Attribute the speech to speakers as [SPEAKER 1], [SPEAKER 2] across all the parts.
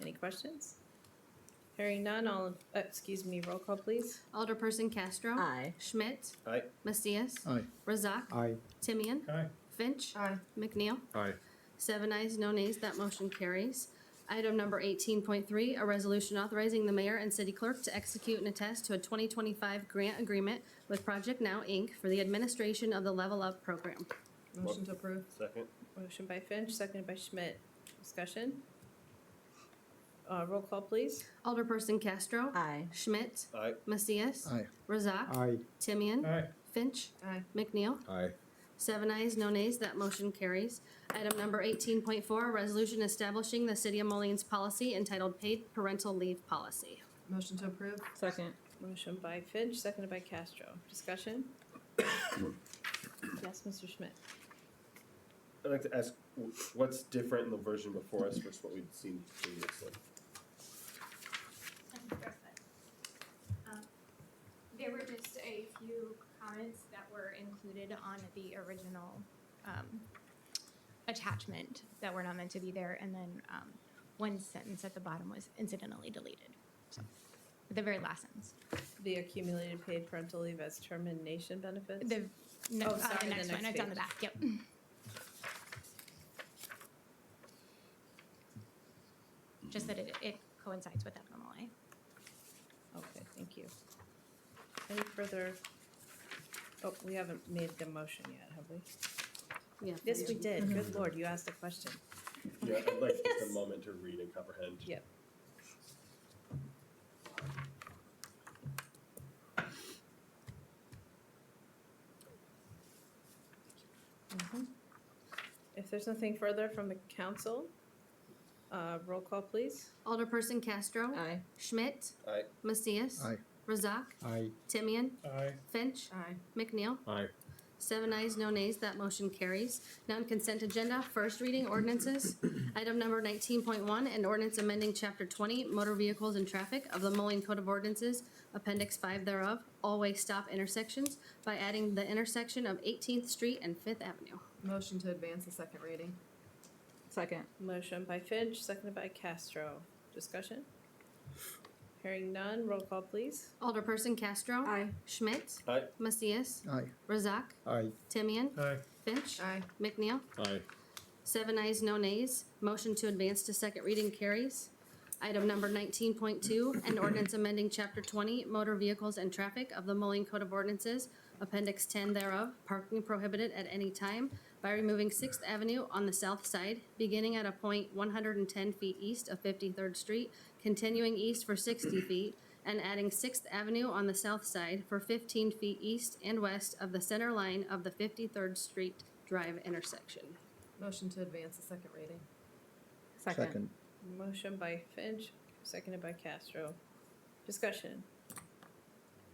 [SPEAKER 1] Any questions? Hearing none, all, in- uh, excuse me, roll call, please.
[SPEAKER 2] Alderperson Castro.
[SPEAKER 3] Aye.
[SPEAKER 2] Schmidt.
[SPEAKER 4] Aye.
[SPEAKER 2] Macias.
[SPEAKER 5] Aye.
[SPEAKER 2] Razak.
[SPEAKER 5] Aye.
[SPEAKER 2] Timian.
[SPEAKER 4] Aye.
[SPEAKER 2] Finch.
[SPEAKER 3] Aye.
[SPEAKER 2] McNeil.
[SPEAKER 5] Aye.
[SPEAKER 2] Seven ayes, no nays, that motion carries. Item number eighteen point three, a resolution authorizing the mayor and city clerk to execute and attest to a twenty twenty-five grant agreement with Project Now, Inc. for the administration of the Level Up program.
[SPEAKER 3] Motion to approve.
[SPEAKER 4] Second.
[SPEAKER 1] Motion by Finch, seconded by Schmidt. Discussion? Uh, roll call, please.
[SPEAKER 2] Alderperson Castro.
[SPEAKER 3] Aye.
[SPEAKER 2] Schmidt.
[SPEAKER 4] Aye.
[SPEAKER 2] Macias.
[SPEAKER 5] Aye.
[SPEAKER 2] Razak.
[SPEAKER 5] Aye.
[SPEAKER 2] Timian.
[SPEAKER 4] Aye.
[SPEAKER 2] Finch.
[SPEAKER 3] Aye.
[SPEAKER 2] McNeil.
[SPEAKER 5] Aye.
[SPEAKER 2] Seven ayes, no nays, that motion carries. Item number eighteen point four, a resolution establishing the city of Mullins policy entitled Paid Parental Leave Policy.
[SPEAKER 3] Motion to approve.
[SPEAKER 6] Second.
[SPEAKER 1] Motion by Finch, seconded by Castro. Discussion? Yes, Mr. Schmidt.
[SPEAKER 4] I'd like to ask, w- what's different in the version before us versus what we've seen previously?
[SPEAKER 7] I can address that. Um, There were just a few comments that were included on the original um, attachment that were not meant to be there, and then um, one sentence at the bottom was incidentally deleted. So, The very last sentence.
[SPEAKER 1] The accumulated paid parental leave as termination benefits?
[SPEAKER 7] The, no,
[SPEAKER 1] Oh,
[SPEAKER 7] uh,
[SPEAKER 1] sorry,
[SPEAKER 7] the
[SPEAKER 1] the
[SPEAKER 7] next one,
[SPEAKER 1] next
[SPEAKER 7] it's on the
[SPEAKER 1] page.
[SPEAKER 7] back, yep. Just that it, it coincides with FMLA.
[SPEAKER 1] Okay, thank you. Any further? Oh, we haven't made the motion yet, have we?
[SPEAKER 2] Yeah.
[SPEAKER 1] Yes, we did. Mhm. Good lord, you asked a question.
[SPEAKER 4] Yeah, I'd like just a moment to read and comprehend.
[SPEAKER 1] Yeah. Mm-hmm. If there's nothing further from the council, uh, roll call, please.
[SPEAKER 2] Alderperson Castro.
[SPEAKER 3] Aye.
[SPEAKER 2] Schmidt.
[SPEAKER 4] Aye.
[SPEAKER 2] Macias.
[SPEAKER 5] Aye.
[SPEAKER 2] Razak.
[SPEAKER 5] Aye.
[SPEAKER 2] Timian.
[SPEAKER 4] Aye.
[SPEAKER 2] Finch.
[SPEAKER 3] Aye.
[SPEAKER 2] McNeil.
[SPEAKER 4] Aye.
[SPEAKER 2] Seven ayes, no nays, that motion carries. Non-consent agenda, first reading ordinances. Item number nineteen point one, an ordinance amending chapter twenty, motor vehicles and traffic of the Moline Code of Ordinances, appendix five thereof, all-way stop intersections by adding the intersection of Eighteenth Street and Fifth Avenue.
[SPEAKER 3] Motion to advance the second reading.
[SPEAKER 6] Second.
[SPEAKER 1] Motion by Finch, seconded by Castro. Discussion? Hearing none, roll call, please.
[SPEAKER 2] Alderperson Castro.
[SPEAKER 3] Aye.
[SPEAKER 2] Schmidt.
[SPEAKER 4] Aye.
[SPEAKER 2] Macias.
[SPEAKER 5] Aye.
[SPEAKER 2] Razak.
[SPEAKER 5] Aye.
[SPEAKER 2] Timian.
[SPEAKER 4] Aye.
[SPEAKER 2] Finch.
[SPEAKER 3] Aye.
[SPEAKER 2] McNeil.
[SPEAKER 4] Aye.
[SPEAKER 2] Seven ayes, no nays. Motion to advance to second reading carries. Item number nineteen point two, an ordinance amending chapter twenty, motor vehicles and traffic of the Moline Code of Ordinances, appendix ten thereof, parking prohibited at any time by removing Sixth Avenue on the south side, beginning at a point one hundred and ten feet east of Fifty-third Street, continuing east for sixty feet, and adding Sixth Avenue on the south side for fifteen feet east and west of the center line of the Fifty-third Street Drive intersection.
[SPEAKER 3] Motion to advance the second reading.
[SPEAKER 6] Second.
[SPEAKER 1] Motion by Finch, seconded by Castro. Discussion?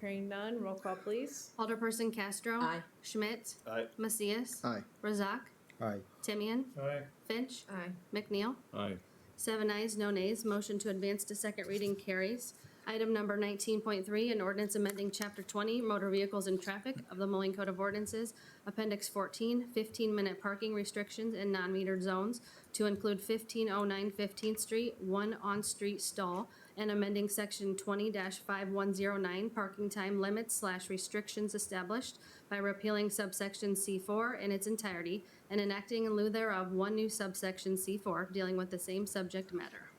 [SPEAKER 1] Hearing none, roll call, please.
[SPEAKER 2] Alderperson Castro.
[SPEAKER 3] Aye.
[SPEAKER 2] Schmidt.
[SPEAKER 4] Aye.
[SPEAKER 2] Macias.
[SPEAKER 5] Aye.
[SPEAKER 2] Razak.
[SPEAKER 5] Aye.
[SPEAKER 2] Timian.
[SPEAKER 4] Aye.
[SPEAKER 2] Finch.
[SPEAKER 3] Aye.
[SPEAKER 2] McNeil.
[SPEAKER 4] Aye.
[SPEAKER 2] Seven ayes, no nays. Motion to advance to second reading carries. Item number nineteen point three, an ordinance amending chapter twenty, motor vehicles and traffic of the Moline Code of Ordinances, appendix 14, 15 fifteen-minute parking restrictions in non-metered zones to include 1509 15th street, one on-street stall, and amending section twenty five one zero nine, parking time limits slash restrictions established by repealing subsection C four in its entirety and enacting in lieu thereof one new subsection C four dealing with the same subject matter.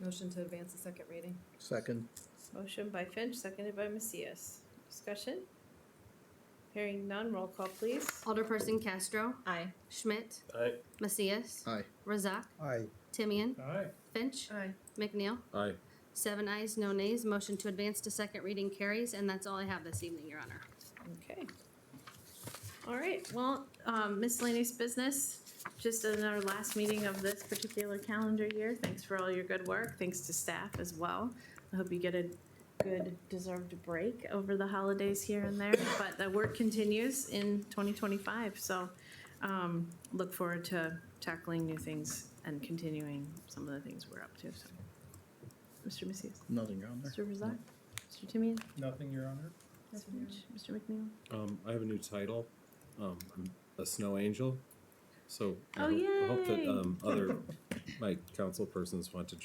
[SPEAKER 3] Motion to advance the second reading.
[SPEAKER 5] Second.
[SPEAKER 1] Motion by Finch, seconded by Macias. Discussion? Hearing none, roll call, please.
[SPEAKER 2] Alderperson Castro.
[SPEAKER 3] Aye.
[SPEAKER 2] Schmidt.
[SPEAKER 4] Aye.
[SPEAKER 2] Macias.
[SPEAKER 5] Aye.
[SPEAKER 2] Razak.
[SPEAKER 5] Aye.
[SPEAKER 2] Timian.
[SPEAKER 4] Aye.
[SPEAKER 2] Finch.
[SPEAKER 3] Aye.
[SPEAKER 2] McNeil.
[SPEAKER 4] Aye.
[SPEAKER 2] Seven ayes, no nays. Motion to advance to second reading carries, and that's all I have this evening, Your Honor.
[SPEAKER 1] Okay. All right, well, um, miscellaneous business, just in our last meeting of this particular calendar year. Thanks for all your good work. Thanks to staff as well. I hope you get a good deserved break over the holidays here and there, but the work continues in twenty twenty-five, so, um, look forward to tackling new things and continuing some of the things we're up to, so. Mr. Macias,
[SPEAKER 5] Nothing on
[SPEAKER 1] Mr. Razak, Mr. Timian,
[SPEAKER 8] Nothing, Your Honor.
[SPEAKER 1] Mr. Finch, Mr. McNeil.
[SPEAKER 9] Um, I have a new title. Um, I'm a snow angel. So I
[SPEAKER 1] Oh,
[SPEAKER 9] hope, I hope that uh,
[SPEAKER 1] yay.
[SPEAKER 9] um, other my council persons want to